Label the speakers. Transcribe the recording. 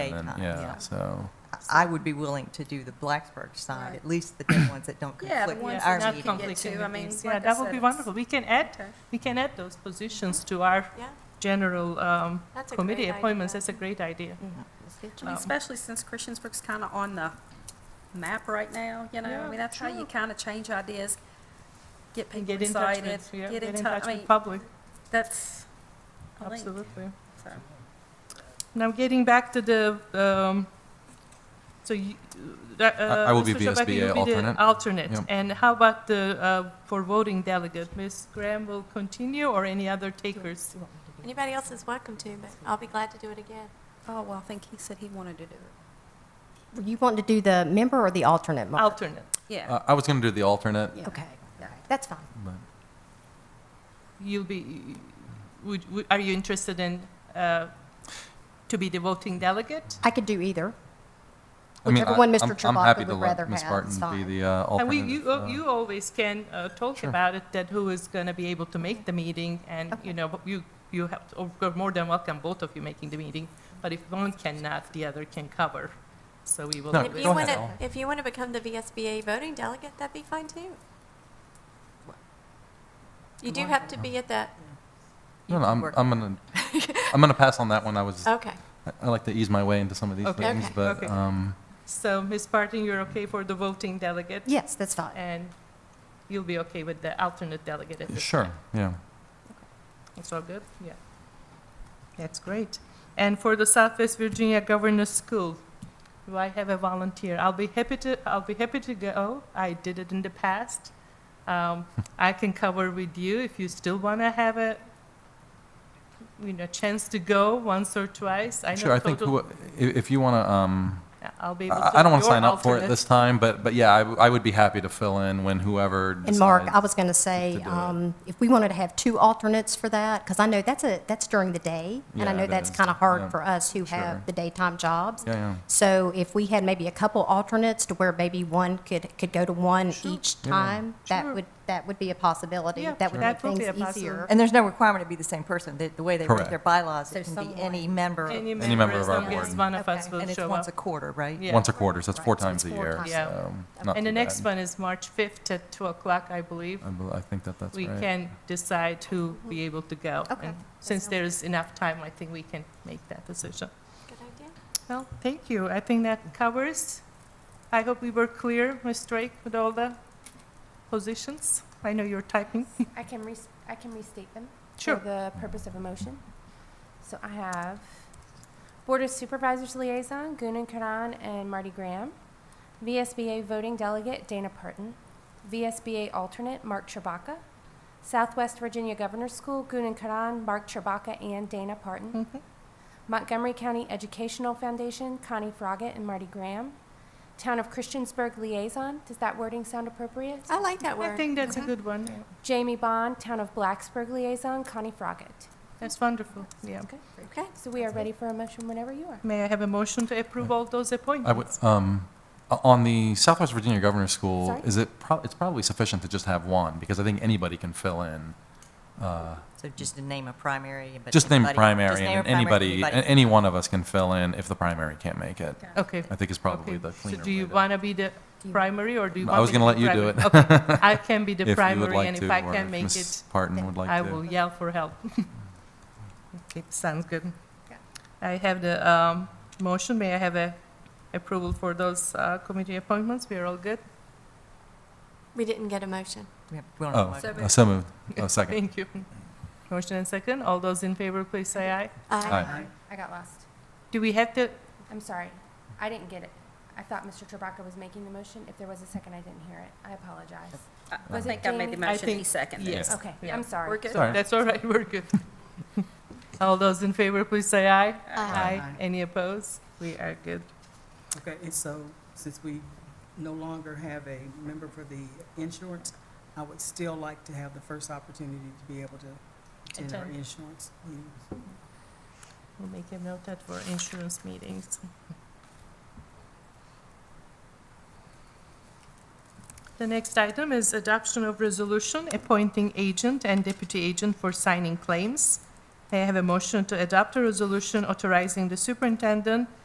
Speaker 1: And then,
Speaker 2: daytime.
Speaker 1: yeah, so,
Speaker 2: I would be willing to do the Blacksburg side, at least the day ones that don't
Speaker 3: Yeah, the
Speaker 2: conflict
Speaker 3: ones
Speaker 2: with
Speaker 3: that
Speaker 2: our
Speaker 3: not
Speaker 2: meeting.
Speaker 3: conflicting
Speaker 4: to, I
Speaker 3: with
Speaker 4: mean,
Speaker 3: these.
Speaker 4: like
Speaker 3: Yeah,
Speaker 4: I
Speaker 3: that would
Speaker 4: said,
Speaker 3: be
Speaker 4: it's-
Speaker 3: wonderful. We can add,
Speaker 4: Okay.
Speaker 3: we can add those positions to our
Speaker 4: Yeah.
Speaker 3: general um,
Speaker 4: That's a
Speaker 3: committee
Speaker 4: great
Speaker 3: appointments.
Speaker 4: idea.
Speaker 3: That's a great idea.
Speaker 4: I mean,
Speaker 3: Um,
Speaker 4: Especially since Christiansburg's kind of on the map right now, you know,
Speaker 3: Yeah,
Speaker 4: I mean, that's how you
Speaker 3: true.
Speaker 4: kind of change ideas, get
Speaker 3: And
Speaker 4: people
Speaker 3: get in touch
Speaker 4: excited,
Speaker 3: with, yeah,
Speaker 4: get in
Speaker 3: in
Speaker 4: touch,
Speaker 3: touch
Speaker 4: I
Speaker 3: with
Speaker 4: mean,
Speaker 3: public,
Speaker 4: that's a link,
Speaker 3: absolutely.
Speaker 4: so.
Speaker 3: Now, getting back to the, um, so you, uh,
Speaker 1: I- I will be
Speaker 3: Mr. Shabaki,
Speaker 1: VSBA
Speaker 3: you'll be the
Speaker 1: alternate.
Speaker 3: alternate.
Speaker 1: Yeah.
Speaker 3: And how about the, uh, for voting delegate? Ms. Graham will continue or any other takers?
Speaker 4: Anybody else is
Speaker 5: Welcome to, but I'll be glad to do it again.
Speaker 4: Oh, well, I think he said he wanted to do it.
Speaker 6: You want to do the member or the alternate? Mark?
Speaker 3: Alternate.
Speaker 4: Yeah.
Speaker 1: uh, I was gonna do the alternate,
Speaker 4: Yeah.
Speaker 6: Okay,
Speaker 4: Yeah.
Speaker 6: that's fine.
Speaker 1: but
Speaker 3: You'll be, would, would- are you interested in, uh, to be the voting delegate?
Speaker 6: I could do either.
Speaker 1: I mean,
Speaker 6: Whichever
Speaker 1: I-
Speaker 6: one Mr.
Speaker 1: I'm- I'm
Speaker 6: Chewbacca
Speaker 1: happy
Speaker 6: would
Speaker 1: to
Speaker 6: rather
Speaker 1: let Ms.
Speaker 6: have,
Speaker 1: Barton
Speaker 6: it's
Speaker 1: be
Speaker 6: fine.
Speaker 1: the uh,
Speaker 3: And we,
Speaker 1: alternate.
Speaker 3: you,
Speaker 1: if, uh,
Speaker 3: uh, you always can uh, talk
Speaker 1: Sure.
Speaker 3: about it, that who is going to be able to make the meeting, and,
Speaker 6: Okay.
Speaker 3: you know, but you, you have, or you're more than welcome, both of you making the meeting, but if one cannot, the other can cover, so we will.
Speaker 1: No,
Speaker 3: do
Speaker 5: If
Speaker 3: it.
Speaker 5: you
Speaker 1: go ahead,
Speaker 5: want to,
Speaker 1: Ellen.
Speaker 5: if you want to become the VSBA voting delegate, that'd be fine too. You do have to be at that,
Speaker 1: No, no,
Speaker 2: can
Speaker 1: I'm,
Speaker 2: work
Speaker 1: I'm gonna, I'm gonna pass on that one. I was, I
Speaker 5: okay.
Speaker 1: I like to ease my way into some of these
Speaker 3: Okay.
Speaker 1: meetings,
Speaker 5: Okay.
Speaker 1: but,
Speaker 3: Okay.
Speaker 1: um,
Speaker 3: So, Ms. Barton, you're okay for the voting delegate?
Speaker 6: Yes, that's fine.
Speaker 3: And you'll be okay with the alternate delegate at this
Speaker 1: sure, yeah.
Speaker 3: It's all good? Yeah. That's great. And for the Southwest Virginia Governor's School, do I have a volunteer? I'll be happy to, I'll be happy to go. I did it in the past. Um, I can cover with you if you still want to have a, you know, chance to go once or twice. I know
Speaker 1: Sure, I think
Speaker 3: total-
Speaker 1: who, if, if you wanna, um,
Speaker 3: I'll be able to.
Speaker 1: I, I don't wanna
Speaker 3: your
Speaker 1: sign up for it
Speaker 3: alternate.
Speaker 1: this time, but, but yeah, I, w- I would be happy to fill in when whoever decides.
Speaker 6: And Mark, I was going to say,
Speaker 1: to do it.
Speaker 6: um, if we wanted to have two alternates for that, because I know that's a, that's during the day, and I
Speaker 1: Yeah,
Speaker 6: know
Speaker 1: it
Speaker 6: that's
Speaker 1: is.
Speaker 6: kind of
Speaker 1: Yeah.
Speaker 6: hard for us who
Speaker 1: Sure.
Speaker 6: have the daytime jobs.
Speaker 1: Yeah, yeah.
Speaker 6: So if we had maybe a couple alternates to where maybe one could, could go to one each
Speaker 1: Yeah.
Speaker 6: time,
Speaker 3: Sure.
Speaker 6: that would, that would be a possibility.
Speaker 3: Yeah,
Speaker 6: That would make
Speaker 3: that would
Speaker 6: things
Speaker 3: be a
Speaker 6: easier.
Speaker 3: possibility.
Speaker 2: And there's no requirement to be the same person. The, the way they write their
Speaker 1: Correct.
Speaker 2: bylaws, it
Speaker 6: So
Speaker 2: can be
Speaker 6: someone-
Speaker 2: any member,
Speaker 3: Any
Speaker 2: and
Speaker 1: Any member
Speaker 3: member, as
Speaker 1: of our
Speaker 3: long as
Speaker 1: board.
Speaker 3: one of us
Speaker 6: Okay.
Speaker 3: will
Speaker 2: it's
Speaker 3: show
Speaker 2: once
Speaker 3: up.
Speaker 2: a quarter, right?
Speaker 3: Yeah.
Speaker 1: Once a quarter, so that's four
Speaker 6: Right, so
Speaker 1: times
Speaker 6: it's
Speaker 1: a
Speaker 6: four
Speaker 1: year,
Speaker 6: times.
Speaker 3: Yeah.
Speaker 1: so. not
Speaker 3: And the
Speaker 1: too
Speaker 3: next
Speaker 1: bad.
Speaker 3: one is March 5th at 2 o'clock, I believe.
Speaker 1: I bel- I think that that's
Speaker 3: We
Speaker 1: right.
Speaker 3: can decide who be able to go.
Speaker 6: Okay.
Speaker 3: And Since there's enough time, I think we can make that decision.
Speaker 5: Good idea.
Speaker 3: Well, thank you. I think that covers. I hope we were clear, Ms. Drake, with all the positions. I know you're typing.
Speaker 7: I can res- I can restate them.
Speaker 3: Sure.
Speaker 7: For the purpose of a motion. So I have Board of Supervisors Liaison, Gunan Karan and Marty Graham. VSBA Voting Delegate, Dana Parton. VSBA Alternate, Mark Chewbacca. Southwest Virginia Governor's School, Gunan Karan, Mark Chewbacca, and Dana Parton.
Speaker 3: Mm-hmm.
Speaker 7: Montgomery County Educational Foundation, Connie Froggett and Marty Graham. Town of Christiansburg Liaison, does that wording sound appropriate?
Speaker 5: I like that
Speaker 3: I
Speaker 5: word.
Speaker 3: think
Speaker 4: Uh-huh.
Speaker 3: that's a good one.
Speaker 7: Jamie Bond, Town of Blacksburg Liaison, Connie Froggett.
Speaker 3: That's wonderful, yeah.
Speaker 7: Okay,
Speaker 5: Okay.
Speaker 7: so we are ready for a motion whenever you are.
Speaker 3: May I have a motion to approve all those
Speaker 1: I would,
Speaker 3: appointments?
Speaker 1: um, o- on the Southwest Virginia Governor's School,
Speaker 7: Sorry?
Speaker 1: is it, prob- it's probably sufficient to just have one, because I think anybody can fill in. Uh,
Speaker 2: So just to name a primary, but.
Speaker 1: Just name
Speaker 2: anybody- just
Speaker 1: primary,
Speaker 2: name
Speaker 1: and
Speaker 2: a primary,
Speaker 1: anybody, a- any one of us can fill in if the primary can't make it,
Speaker 3: Okay.
Speaker 1: I think is probably
Speaker 3: Okay.
Speaker 1: the
Speaker 3: So
Speaker 1: cleaner
Speaker 3: do you
Speaker 1: way to-
Speaker 3: want to be the primary, or do you
Speaker 1: No, I
Speaker 3: want me to?
Speaker 1: was gonna let
Speaker 3: be
Speaker 1: you do
Speaker 3: primary? Okay, I can be the
Speaker 1: If you would
Speaker 3: primary, and
Speaker 1: like
Speaker 3: if
Speaker 1: to,
Speaker 3: I
Speaker 1: or if
Speaker 3: can make it.
Speaker 1: Ms. Parton would
Speaker 3: I
Speaker 1: like
Speaker 3: will
Speaker 1: to.
Speaker 3: yell for help. Okay, sounds good. I have the um, motion. May I have a approval for those uh, committee appointments? We are all good?
Speaker 5: We didn't get a motion.
Speaker 2: We have- we don't
Speaker 1: Oh,
Speaker 2: have a-
Speaker 1: uh, so moved, oh, second.
Speaker 3: Thank you. Motion and second. All those in favor, please say aye.
Speaker 5: Aye.
Speaker 3: uh,
Speaker 1: Aye.
Speaker 7: I got lost.
Speaker 3: Do we have to,
Speaker 7: I'm sorry. I didn't get it. I thought Mr. Tribaka was making the motion. If there was a second, I didn't hear it. I apologize.
Speaker 4: I- I
Speaker 7: Was it
Speaker 4: think I made the
Speaker 7: Jamie?
Speaker 3: I
Speaker 4: motion, he
Speaker 3: think-
Speaker 4: seconded it.
Speaker 3: yes.
Speaker 7: Okay,
Speaker 3: Yeah.
Speaker 7: I'm sorry.
Speaker 4: We're good.
Speaker 1: Sorry.
Speaker 3: That's all right, we're good. All those in favor, please say aye.
Speaker 5: Aye.
Speaker 3: Any opposed? We are good.
Speaker 8: Okay, and so since we no longer have a member for the insurance, I would still like to have the first opportunity to be able to attend our
Speaker 3: Attend.
Speaker 8: insurance meetings.
Speaker 3: We'll make a note that for insurance meetings. The next item is adoption of resolution appointing agent and deputy agent for signing claims. May I have a motion to adopt a resolution authorizing the superintendent